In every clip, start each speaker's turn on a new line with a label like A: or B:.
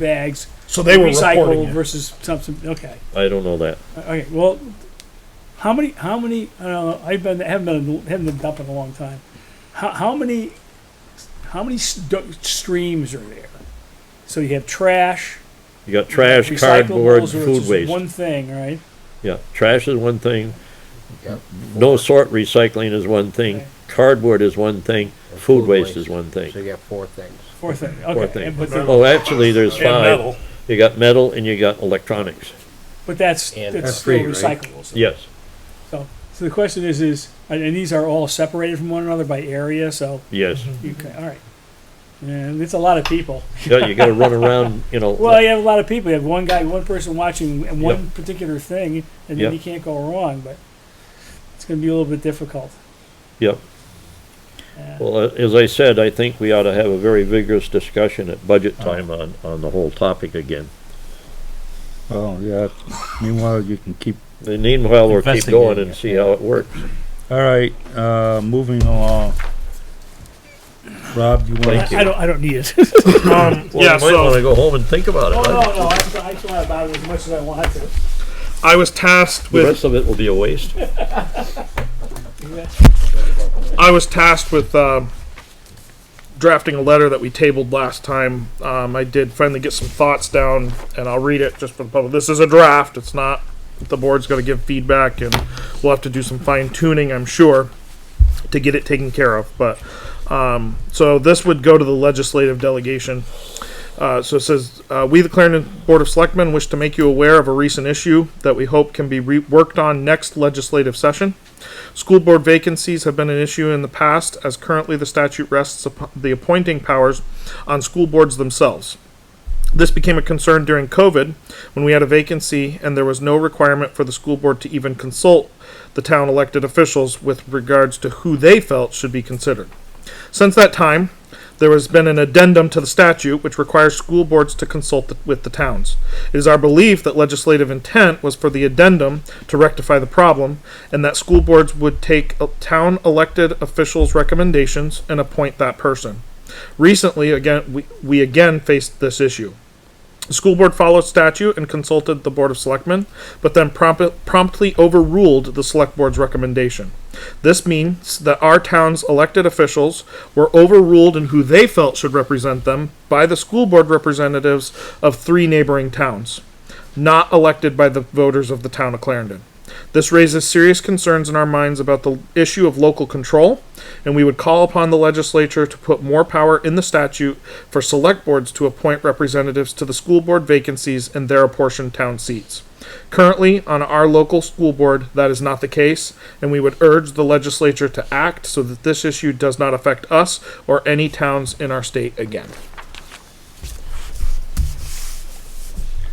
A: bags
B: So they were reporting
A: recycled
B: it.
A: versus something. Okay,
C: I don't know that.
A: okay. Well, how many? How many? I don't know. I've been haven't been haven't been dumping in a long time. How, how many? How many st- streams are there? So you have trash,
C: You got trash,
A: recyclables, or
C: cardboard,
A: it's
C: food
A: just
C: waste.
A: One thing, right?
C: Yeah, trash is one thing.
D: Yep.
C: No sort recycling is one thing.
A: Okay.
C: Cardboard is one thing.
D: And
C: Food waste is one
D: So
C: thing.
D: you got four things.
A: Four thing. Okay.
C: Four
A: and-
C: things.
A: But, the-
C: Oh, actually, there's
B: And
C: five.
B: metal.
C: You got metal and you got electronics.
A: but that's
D: And
A: that's
D: that's
A: still
D: free, right?
A: recyclables.
C: Yes,
A: So so the question is is and and these are all separated from one another by area. So
C: yes.
A: you can, all right. And it's a lot of people.
C: Yeah, you gotta run around, you know.
A: Well, you have a lot of people. You have one guy, one person watching one particular thing, and then
C: Yep.
A: you can't go wrong. But it's going to be a little bit difficult.
C: Yep. Well, uh, as I said, I think we ought to have a very vigorous discussion at budget time on, on the whole topic again.
E: Oh, yeah. Meanwhile, you can keep,
C: And meanwhile, we'll keep
F: Investigating
C: going and see how it works.
E: all right, uh, moving along. Rob, you want
C: Thank
E: to?
C: you.
A: I don't. I don't need it.
C: Well,
B: Um, yeah,
C: you might wanna
B: so Oh,
C: go home and think about
A: no,
C: it.
A: no,
C: I-
A: no. I still, I still have about it as much as I want to.
B: I was tasked
C: The
B: with
C: rest of it will be a waste.
B: I was tasked with um, drafting a letter that we tabled last time. Um, I did finally get some thoughts down, and I'll read it just for the public. This is a draft. It's not. The board's going to give feedback, and we'll have to do some fine tuning, I'm sure, to get it taken care of. But um, so this would go to the legislative delegation. Uh, so it says, uh, "We, the Clarendon Board of Selectmen, wish to make you aware of a recent issue that we hope can be re- worked on next legislative session." School board vacancies have been an issue in the past, as currently the statute rests upon the appointing powers on school boards themselves. This became a concern during COVID when we had a vacancy and there was no requirement for the school board to even consult the town elected officials with regards to who they felt should be considered. Since that time, there has been an addendum to the statute which requires school boards to consult th- with the towns. It is our belief that legislative intent was for the addendum to rectify the problem and that school boards would take uh, town elected officials' recommendations and appoint that person. Recently, again, we, we again faced this issue. The school board followed statute and consulted the Board of Selectmen, but then prompt, promptly overruled the Select Board's recommendation. This means that our town's elected officials were overruled in who they felt should represent them by the school board representatives of three neighboring towns, not elected by the voters of the town of Clarendon. This raises serious concerns in our minds about the issue of local control, and we would call upon the legislature to put more power in the statute for select boards to appoint representatives to the school board vacancies in their apportioned town seats. Currently, on our local school board, that is not the case, and we would urge the legislature to act so that this issue does not affect us or any towns in our state again.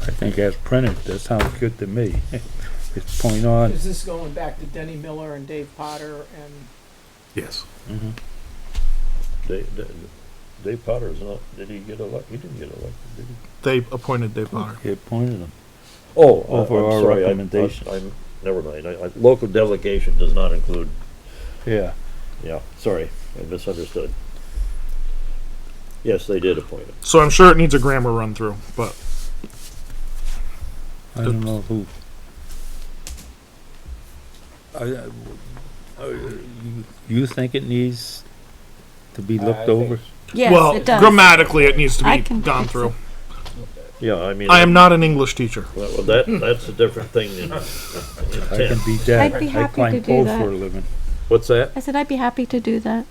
E: I think as printed, that sounds good to me. It's point on.
G: Is this going back to Denny Miller and Dave Potter and?
B: Yes.
C: Dave, Dave Potter is not, did he get elected? He didn't get elected, did he?
B: They appointed Dave Potter.
E: It pointed them.
C: Oh, I-
E: Over
C: I'm
E: our
C: sorry, I- I-
E: recommendations.
C: I'm, never mind, I, I, local delegation does not include,
E: Yeah.
C: yeah, sorry, I misunderstood. Yes, they did appoint him.
B: So I'm sure it needs a grammar run through, but
E: I don't know who. I, I- you- you think it needs to be
D: I
E: looked
D: think
E: over?
H: Yes,
B: well,
H: it does.
B: grammatically it needs to
H: I
B: be
H: can
B: gone
H: fix
B: through.
H: it.
C: Yeah, I mean,
B: I am not an English teacher.
C: well, that, that's a different thing than
E: I can
C: intent.
E: be dead.
H: I'd be
E: I
H: happy to
E: climb
H: do
E: poles
H: that.
E: for a living.
C: What's that?
H: I said I'd be happy to do that.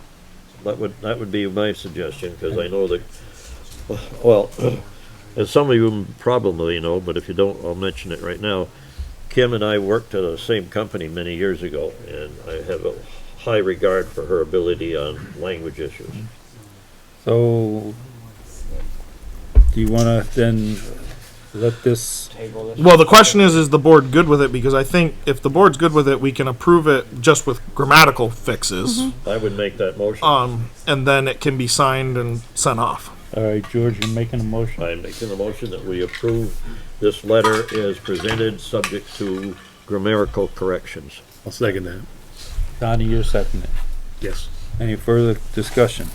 C: That would, that would be my suggestion, because I know that, well, as some of you probably know, but if you don't, I'll mention it right now. Kim and I worked at the same company many years ago, and I have a high regard for her ability on language issues.
E: So, do you wanna then let this,
D: Table this.
B: Well, the question is, is the board good with it? Because I think if the board's good with it, we can approve it just with grammatical fixes,
H: Mm-hmm.
C: I would make that motion.
B: um, and then it can be signed and sent off.
E: all right, George, you're making a motion?
C: I'm making a motion that we approve this letter as presented, subject to grammatical corrections.
F: I'll second that.
E: Donnie, you're seconding it.
F: Yes.
E: Any further discussion?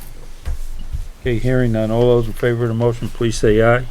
E: Okay, hearing none. All those in favor of the motion, please say aye.